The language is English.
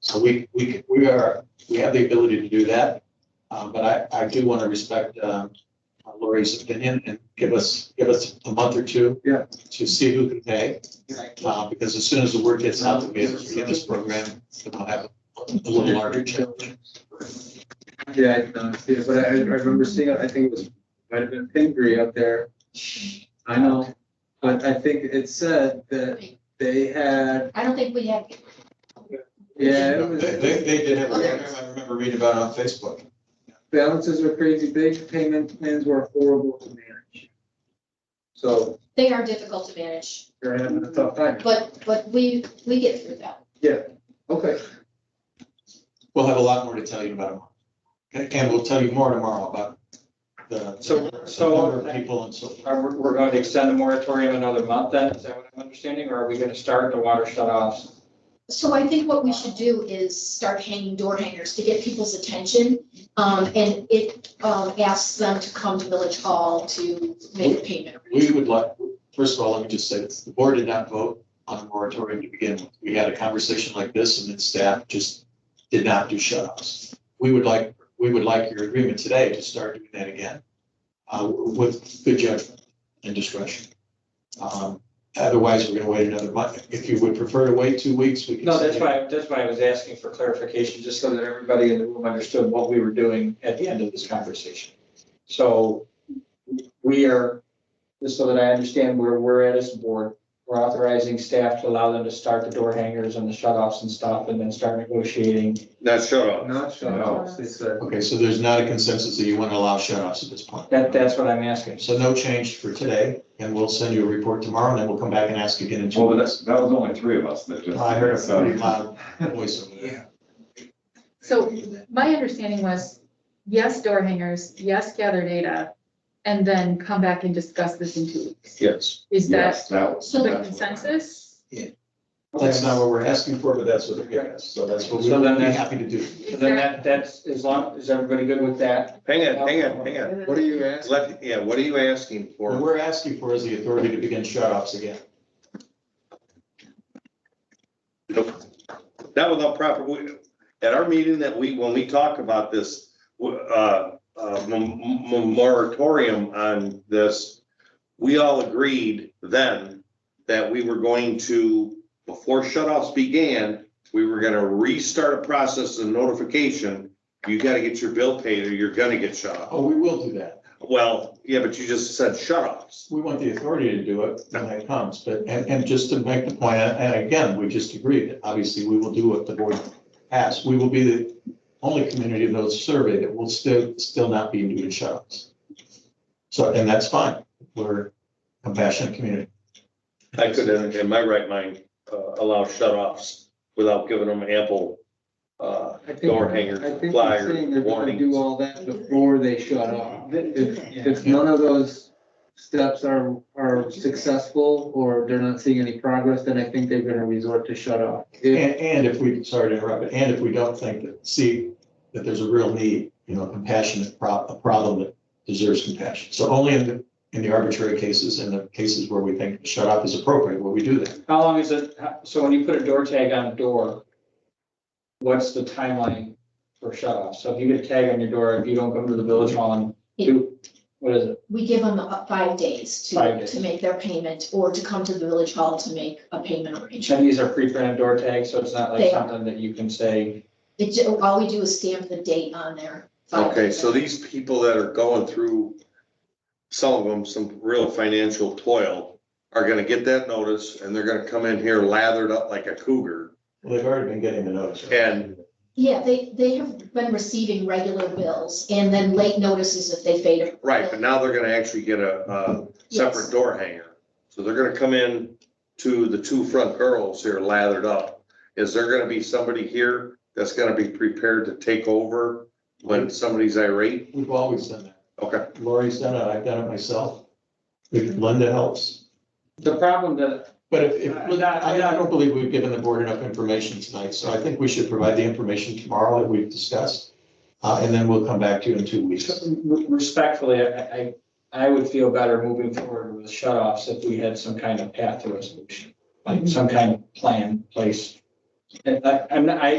So we, we, we are, we have the ability to do that. Uh, but I, I do want to respect, um, Lori's opinion and give us, give us a month or two. Yeah. To see who can pay, Exactly. uh, because as soon as the word gets out that we have to get this program, we'll have a little larger challenge. Yeah, I did not see it, but I, I remember seeing it, I think it was, might have been Pingree up there. I know, but I think it said that they had, I don't think we have. yeah, it They, was. they, they did have a program, I remember reading about it on Facebook. Balances were crazy big, payment plans were horrible to manage. So They are difficult to manage, they're having a tough time. but, but we, we get through that. Okay, We'll have a lot more to tell you about it. And- And we'll tell you more tomorrow about the. So- the so- number of People and so forth. Are, we- we're going to extend the moratorium another month then, is that what I'm understanding, or are we gonna start the water shut offs? So I think what we should do is start hanging door hangers to get people's attention. Um, and it, um, asks them to come to Village Hall to make a payment. We would like, first of all, let me just say, this, the board did not vote on a moratorium to begin with. We had a conversation like this and then staff just did not do shut-offs. We would like, we would like your agreement today to start doing that again, uh, with good judgment and discretion. Um, otherwise, we're gonna wait another month. If you would prefer to wait two weeks, we can. No, that's why, that's why I was asking for clarification, just so that everybody in the room understood what we were doing at the end of this conversation. So we are, just so that I understand where we're at as a board, we're authorizing staff to allow them to start the door hangers and the shut offs and stuff, and then start negotiating. Not shut off. not shut off, they said. Okay, so there's not a consensus that you want to allow shut-offs at this point. That, that's what I'm asking. So no change for today, and we'll send you a report tomorrow, and then we'll come back and ask again in two Well, but weeks. that's, that was only three of us that just. I heard a So- pretty loud voice over there. So my understanding was, yes, door hangers, yes, gather data, and then come back and discuss this in two weeks. Yes. Is that Yes, that was. So the that's what- consensus? That's not what we're asking for, but that's what they're giving us, so that's what we So would then be that's- happy to do. So Then that, that's, as long, is everybody good with that? Hang on, hang on, hang on. What are you asking? Let, yeah, what are you asking What for? we're asking for is the authority to begin shut-offs again. Not without proper, we- at our meeting that we, when we talk about this, uh, uh, m- m- moratorium on this, we all agreed then that we were going to, before shut-offs began, we were gonna restart a process of notification. You gotta get your bill paid or you're gonna get shut off. Oh, we will do that. Well, yeah, but you just said shut-offs. We want the authority to do it when that comes, but, and, and just to make the point, and again, we just agreed, that obviously, we will do what the board asks. We will be the only community of those surveyed that will still, still not be doing shut-offs. So, and that's fine. We're a compassionate community. I could, in- in my right mind, uh, allow shut-offs without giving them ample, uh, I think- door hanger, I think they're flyer, saying they're gonna warnings. do all that before they shut off. If, if none of those steps are, are successful or they're not seeing any progress, then I think they're gonna resort to shut off. If- And, and if we, sorry to interrupt, but and if we don't think that, see, that there's a real need, you know, compassionate prob, a problem that deserves compassion. So only in the, in the arbitrary cases and the cases where we think shut off is appropriate, will we do that. How long is it, how- so when you put a door tag on a door, what's the timeline for shut off? So if you get a tag on your door, if you don't come to the village hall and do, what is it? We give them uh, five days Five to, days. to make their payment or to come to the Village Hall to make a payment arrangement. And these are pre-printed door tags, so it's not They like are. something that you can say, It, ju- all we do is stamp the date on there. five Okay, days. so these people that are going through, some of them, some real financial toil, are gonna get that notice, and they're gonna come in here lathered up like a cougar, Well, they've already been getting the notice. and Yeah, they, they have been receiving regular bills and then late notices if they fade. a- Right, but now they're gonna actually get a, a Yes. separate door hanger. So they're gonna come in to the two front girls here lathered up. Is there gonna be somebody here that's gonna be prepared to take over when somebody's irate? We've always done that. Okay, Lori's done it, I've done it myself. Linda helps. the problem that, But if, if, I'm not- I, I don't believe we've given the board enough information tonight, so I think we should provide the information tomorrow that we've discussed. Uh, and then we'll come back to you in two weeks. respectfully, I, I, I would feel better moving forward with shut offs if we had some Mm-hmm. kind of path to resolution, like some kind of plan in place. And I, I'm, not- I,